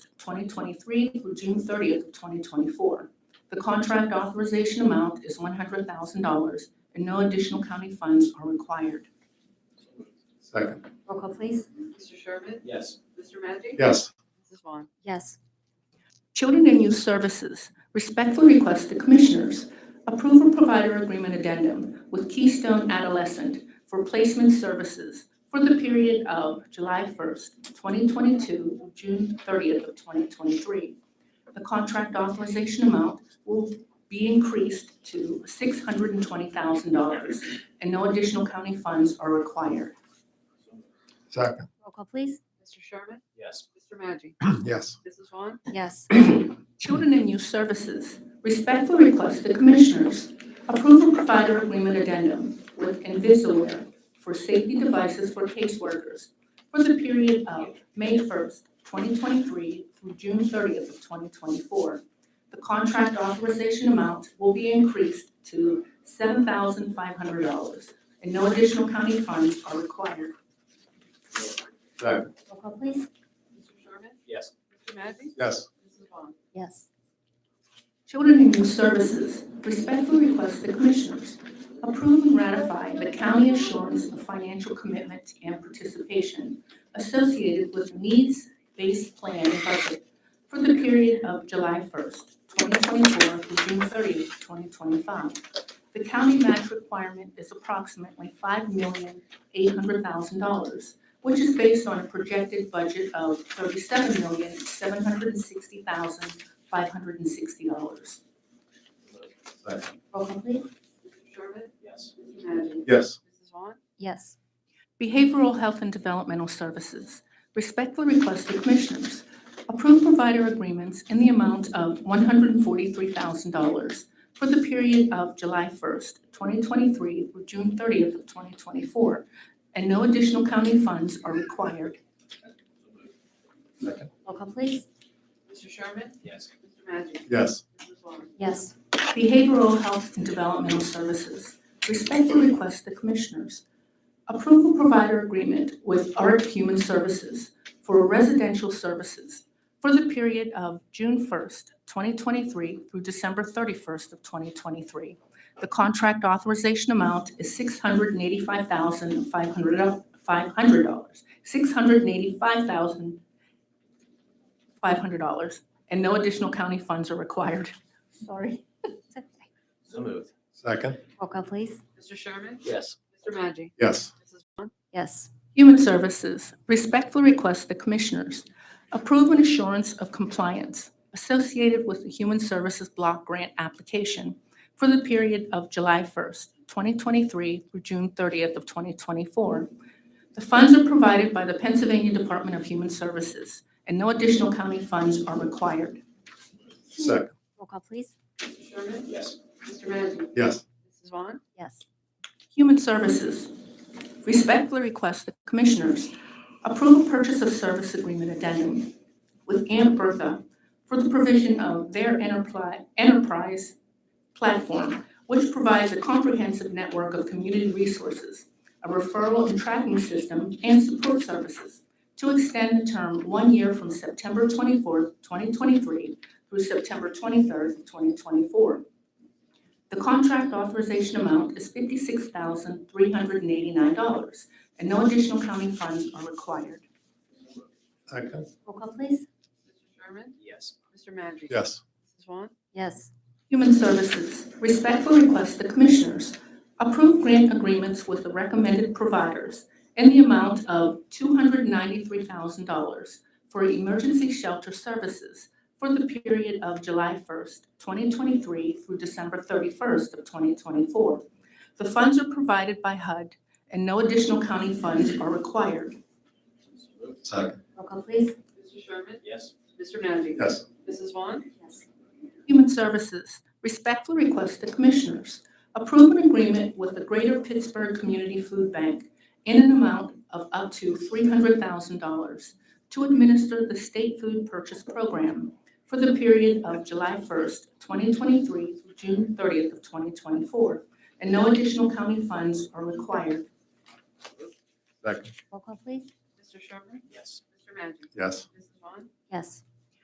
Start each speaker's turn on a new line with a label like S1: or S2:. S1: 2023 through June 30th, of 2024. The contract authorization amount is $100,000, and no additional county funds are required.
S2: Second.
S3: Roll call, please.
S4: Mr. Sherman?
S5: Yes.
S4: Mr. Magic?
S2: Yes.
S4: Mrs. Vaughn?
S3: Yes.
S1: Children and Youth Services respectfully request the Commissioners approve a provider agreement addendum with Keystone Adolescent for placement services for the period of July 1st, 2022, through June 30th of 2023. The contract authorization amount will be increased to $620,000, and no additional county funds are required.
S2: Second.
S3: Roll call, please.
S4: Mr. Sherman?
S5: Yes.
S4: Mr. Magic?
S2: Yes.
S4: Mrs. Vaughn?
S3: Yes.
S1: Children and Youth Services respectfully request the Commissioners approve a provider agreement addendum with Invisalware for safety devices for caseworkers for the period of May 1st, 2023 through June 30th of 2024. The contract authorization amount will be increased to $7,500, and no additional county funds are required.
S2: Second.
S3: Roll call, please.
S4: Mr. Sherman?
S5: Yes.
S4: Mr. Magic?
S2: Yes.
S4: Mrs. Vaughn?
S3: Yes.
S1: Children and Youth Services respectfully request the Commissioners approve and ratify the county assurance of financial commitment and participation associated with needs-based plan budget for the period of July 1st, 2024 through June 30th, 2025. The county match requirement is approximately $5,800,000, which is based on a projected budget of $37,760,000 five hundred and sixty dollars.
S2: Second.
S3: Roll call, please.
S4: Mr. Sherman?
S5: Yes.
S4: Mr. Magic?
S2: Yes.
S4: Mrs. Vaughn?
S3: Yes.
S1: Behavioral Health and Developmental Services respectfully request the Commissioners approve provider agreements in the amount of one hundred and forty-three thousand dollars for the period of July first, twenty twenty-three through June thirtieth of twenty twenty-four, and no additional county funds are required.
S2: Second.
S3: Roll call, please.
S4: Mr. Sherman?
S5: Yes.
S4: Mr. Magic?
S2: Yes.
S4: Mrs. Vaughn?
S3: Yes.
S1: Behavioral Health and Developmental Services respectfully request the Commissioners approve a provider agreement with ARC Human Services for residential services for the period of June 1st, 2023 through December 31st of 2023. The contract authorization amount is $685,500, $685,500, and no additional county funds are required. Sorry.
S3: It's okay.
S5: So moved.
S2: Second.
S3: Roll call, please.
S4: Mr. Sherman?
S5: Yes.
S4: Mr. Magic?
S2: Yes.
S4: Mrs. Vaughn?
S3: Yes.
S1: Human Services respectfully request the Commissioners approve an assurance of compliance associated with the Human Services Block Grant application for the period of July 1st, 2023 through June 30th of 2024. The funds are provided by the Pennsylvania Department of Human Services, and no additional county funds are required.
S2: Second.
S3: Roll call, please.
S4: Mr. Sherman?
S5: Yes.
S4: Mr. Magic?
S2: Yes.
S4: Mrs. Vaughn?
S3: Yes.
S1: Human Services respectfully request the Commissioners approve a purchase of service agreement addendum with Aunt Bertha for the provision of their enterpli- enterprise platform, which provides a comprehensive network of community resources, a referral and tracking system, and support services to extend the term one year from September 24th, 2023 through September 23rd, 2024. The contract authorization amount is fifty-six thousand, three hundred and eighty-nine dollars, and no additional county funds are required.
S2: Second.
S3: Roll call, please.
S4: Mr. Sherman?
S5: Yes.
S4: Mr. Magic?
S2: Yes.
S4: Mrs. Vaughn?
S3: Yes.
S1: Human Services respectfully request the Commissioners approve grant agreements with the recommended providers in the amount of $293,000 for emergency shelter services for the period of July 1st, 2023 through December 31st of 2024. The funds are provided by HUD and no additional county funds are required.
S5: So moved.
S2: Second.
S3: Roll call, please.
S4: Mr. Sherman?
S5: Yes.
S4: Mr. Magic?
S2: Yes.
S4: Mrs. Vaughn?
S3: Yes.
S1: Human Services respectfully request the Commissioners approve an agreement with the Greater Pittsburgh Community Food Bank in an amount of up to $300,000 to administer the state food purchase program for the period of July 1st, 2023 through June 30th of 2024, and no additional county funds are required.
S2: Second.
S3: Roll call, please.
S4: Mr. Sherman?
S5: Yes.
S4: Mr. Magic?
S2: Yes.
S4: Mrs. Vaughn?
S3: Yes.